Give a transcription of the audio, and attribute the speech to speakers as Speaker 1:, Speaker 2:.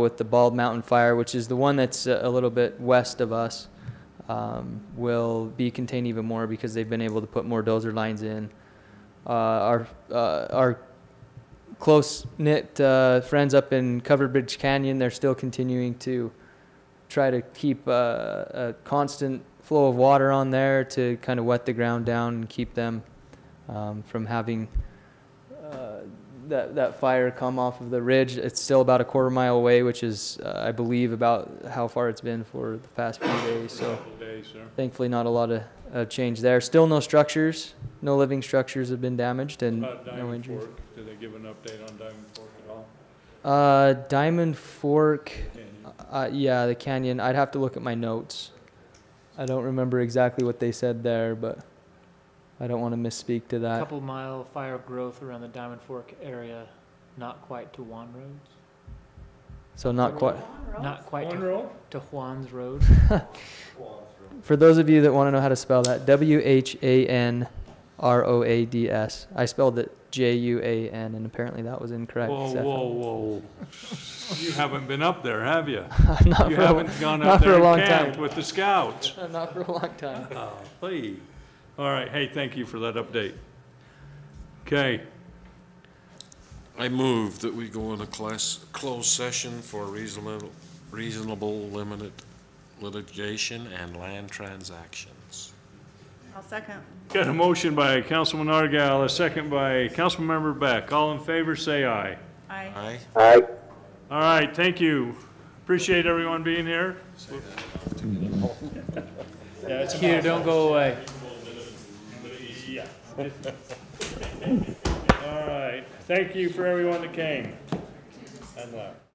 Speaker 1: with the Bald Mountain Fire, which is the one that's uh, a a little bit west of us, um, will be contained even more because they've been able to put more dozer lines in. Uh, our uh, our close knit uh, friends up in Covered Bridge Canyon, they're still continuing to try to keep uh, a constant flow of water on there to kind of wet the ground down and keep them um, from having uh, that that fire come off of the ridge. It's still about a quarter mile away, which is, uh, I believe, about how far it's been for the past few days. So
Speaker 2: Couple days, sir.
Speaker 1: thankfully, not a lot of uh, change there. Still, no structures, no living structures have been damaged, and
Speaker 2: About
Speaker 1: no
Speaker 2: Diamond
Speaker 1: injuries.
Speaker 2: Fork, did they give an update on Diamond Fork at all?
Speaker 1: Uh, Diamond Fork.
Speaker 2: Can you-
Speaker 1: Uh, yeah, the canyon. I'd have to look at my notes. I don't remember exactly what they said there, but I don't want to misspeak to that.
Speaker 3: Couple mile fire growth around the Diamond Fork area, not quite to Juan Roads,
Speaker 1: So not quite.
Speaker 3: not quite
Speaker 2: Corn
Speaker 3: to,
Speaker 2: roll?
Speaker 3: to Juan's Road.
Speaker 1: For those of you that want to know how to spell that, W H A N R O A D S. I spelled it J U A N, and apparently that was incorrect.
Speaker 2: Whoa,
Speaker 1: Zeph.
Speaker 2: whoa, whoa. You haven't been up there, have you?
Speaker 1: not,
Speaker 2: You
Speaker 1: for a,
Speaker 2: haven't gone
Speaker 1: not
Speaker 2: up
Speaker 1: for a
Speaker 2: there
Speaker 1: long
Speaker 2: and
Speaker 1: time.
Speaker 2: camped with the scouts?
Speaker 1: not for a long time.
Speaker 2: Oh, please. All right, hey, thank you for that update. Okay,
Speaker 4: I move that we go into class, closed session for reasonable, reasonable limited litigation and land transactions.
Speaker 5: I'll second.
Speaker 2: got a motion by Councilman Argal, a second by Councilmember Beck. All in favor, say aye.
Speaker 5: Aye.
Speaker 4: Aye?
Speaker 2: All right, thank you. Appreciate everyone being here.
Speaker 3: Peter, don't go away.
Speaker 2: Yeah. All right, thank you for everyone that came and left.